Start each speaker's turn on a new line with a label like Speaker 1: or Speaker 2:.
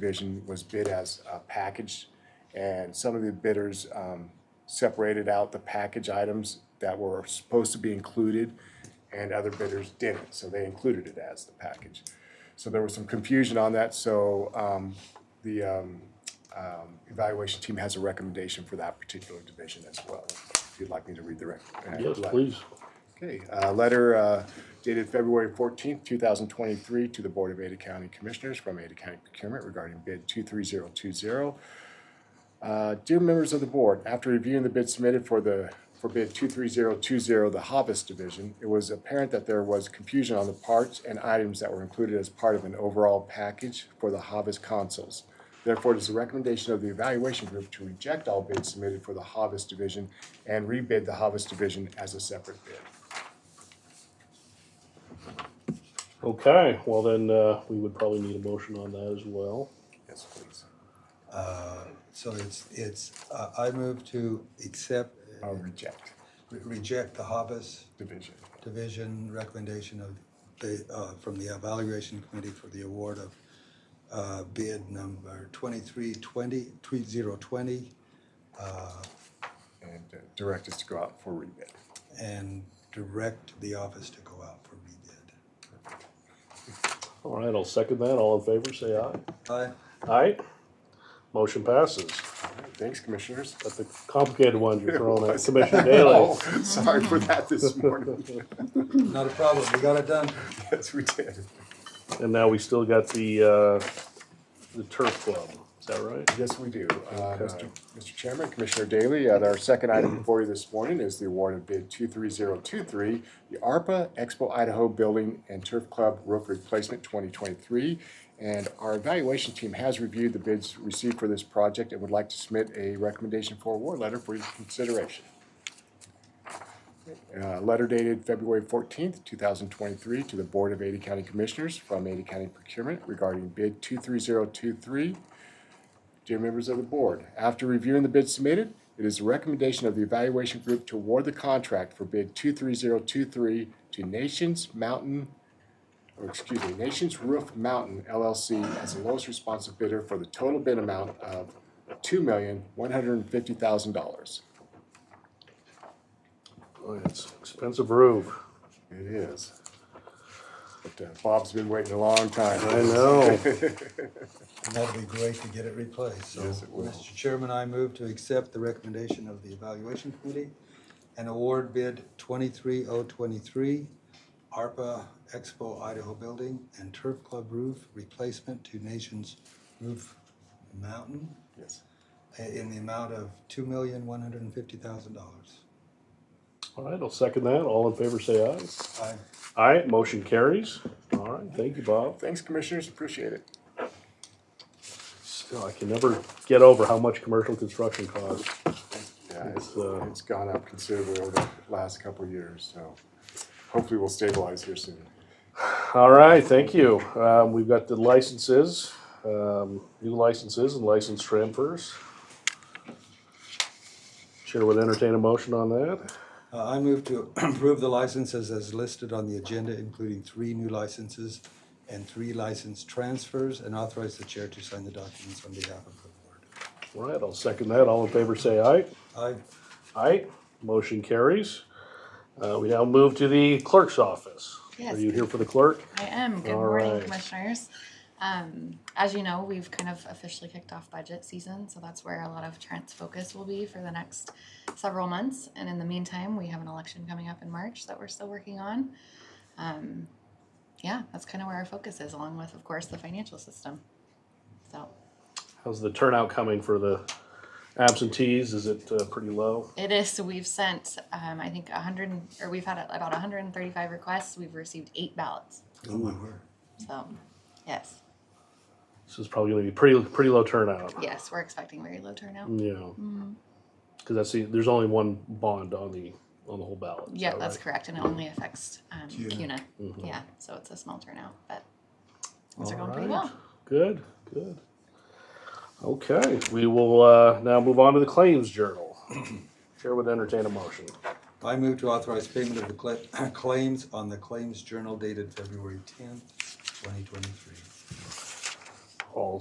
Speaker 1: division was bid as a package. And some of the bidders um, separated out the package items that were supposed to be included and other bidders didn't, so they included it as the package. So there was some confusion on that, so um, the um, um, evaluation team has a recommendation for that particular division as well. If you'd like me to read the rec. uh,
Speaker 2: Yes,
Speaker 1: let-
Speaker 2: please.
Speaker 1: Okay, uh, letter uh, dated February fourteenth, two thousand twenty-three, to the Board of Ada County Commissioners from Ada County Procurement regarding bid two-three-zero-two-zero. Uh, Dear members of the board, after reviewing the bid submitted for the, for bid 23020, the Hobbs Division, it was apparent that there was confusion on the parts and items that were included as part of an overall package for the Hobbs consoles. Therefore, it is the recommendation of the evaluation group to reject all bids submitted for the Hobbs Division and rebid the Hobbs Division as a separate bid.
Speaker 2: Okay, well then, uh, we would probably need a motion on that as well.
Speaker 1: Yes, please.
Speaker 3: Uh, So it's, it's, uh, I move to accept,
Speaker 1: Uh, Reject
Speaker 3: re- reject the Hobbs
Speaker 1: division.
Speaker 3: Division recommendation of the, uh, from the evaluation committee for the award of uh, bid number 2320, 3020,
Speaker 1: And uh, direct us to go out for rebid.
Speaker 3: and direct the office to go out for rebid.
Speaker 2: All right, I'll second that. All in favor, say aye.
Speaker 3: Aye?
Speaker 2: Aye. Motion passes.
Speaker 1: Thanks, Commissioners.
Speaker 2: That's a complicated one you're throwing at Commissioner Daley.
Speaker 1: Oh, Sorry for that this morning.
Speaker 3: Not a problem, we got it done.
Speaker 1: Yes, we did.
Speaker 2: And now we still got the, uh, the turf club. Is that right?
Speaker 1: Yes, we do. Uh, Mr. Mr. Chairman, Commissioner Daley, uh, our second item before you this morning is the award of bid 23023, the ARPA Expo Idaho Building and Turf Club Roof Replacement 2023. And our evaluation team has reviewed the bids received for this project and would like to submit a recommendation for award letter for your consideration. Uh, Letter dated February 14th, 2023, to the Board of Ada County Commissioners from Ada County Procurement regarding bid 23023, Dear members of the board, after reviewing the bids submitted, it is the recommendation of the evaluation group to award the contract for bid 23023 to Nations Mountain, or excuse me, Nations Roof Mountain LLC as the lowest responsive bidder for the total bid amount of $2,150,000.
Speaker 2: Boy, it's Oh, expensive roof.
Speaker 1: It is. But uh, Bob's been waiting a long time.
Speaker 2: I know.
Speaker 3: And that'd be great to get it replaced, so.
Speaker 1: Yes, it will.
Speaker 3: Mr. Chairman, I move to accept the recommendation of the evaluation committee and award bid twenty-three oh twenty-three, ARPA Expo Idaho Building and Turf Club Roof Replacement to Nations Roof Mountain
Speaker 1: Yes.
Speaker 3: uh, in the amount of two million, one hundred and fifty thousand dollars.
Speaker 2: All right, I'll second that. All in favor, say aye.
Speaker 3: I,
Speaker 2: Aye, motion carries. All right, thank you, Bob.
Speaker 1: Thanks, commissioners, appreciate it.
Speaker 2: Still, I can never get over how much commercial construction costs.
Speaker 1: Yeah, it's,
Speaker 2: It's, uh,
Speaker 1: it's gone up considerably over the last couple of years, so hopefully we'll stabilize here soon.
Speaker 2: All right, thank you. Um, we've got the licenses, um, new licenses and license transfers. Chair would entertain a motion on that.
Speaker 3: uh, I move to approve the licenses as listed on the agenda, including three new licenses and three license transfers, and authorize the chair to sign the documents on behalf of the board.
Speaker 2: All right, I'll second that. All in favor, say aye.
Speaker 3: Aye.
Speaker 2: Aye, motion carries. Uh, we now move to the clerk's office. Are
Speaker 4: Yes.
Speaker 2: you here for the clerk?
Speaker 4: I am. Good
Speaker 2: All
Speaker 4: morning,
Speaker 2: right.
Speaker 4: commissioners. Um, as you know, we've kind of officially kicked off budget season, so that's where a lot of Trent's focus will be for the next several months. And in the meantime, we have an election coming up in March that we're still working on. Um, yeah, that's kind of where our focus is, along with, of course, the financial system. So
Speaker 2: How's the turnout coming for the absentees? Is it uh, pretty low?
Speaker 4: it is. So we've sent, um, I think, 100 and- or we've had about 135 requests. We've received eight ballots.
Speaker 3: Oh, my word.
Speaker 4: So, yes,
Speaker 2: This is probably going to be pretty pretty low turnout.
Speaker 4: yes, we're expecting very low turnout.
Speaker 2: Yeah.
Speaker 4: Mm-hmm.
Speaker 2: Because that's the, there's only one bond on the on the whole ballot. is
Speaker 4: Yeah,
Speaker 2: that
Speaker 4: that's
Speaker 2: right?
Speaker 4: correct, and it only affects um, CUNA.
Speaker 2: Mhm.
Speaker 4: Yeah, so it's a small turnout, but things are
Speaker 2: All
Speaker 4: going pretty
Speaker 2: right.
Speaker 4: well.
Speaker 2: Good, good. Okay, we will uh, now move on to the claims journal. Chair would entertain a motion.
Speaker 3: I move to authorize payment of the cla- claims on the claims journal dated February tenth, twenty twenty-three.
Speaker 2: All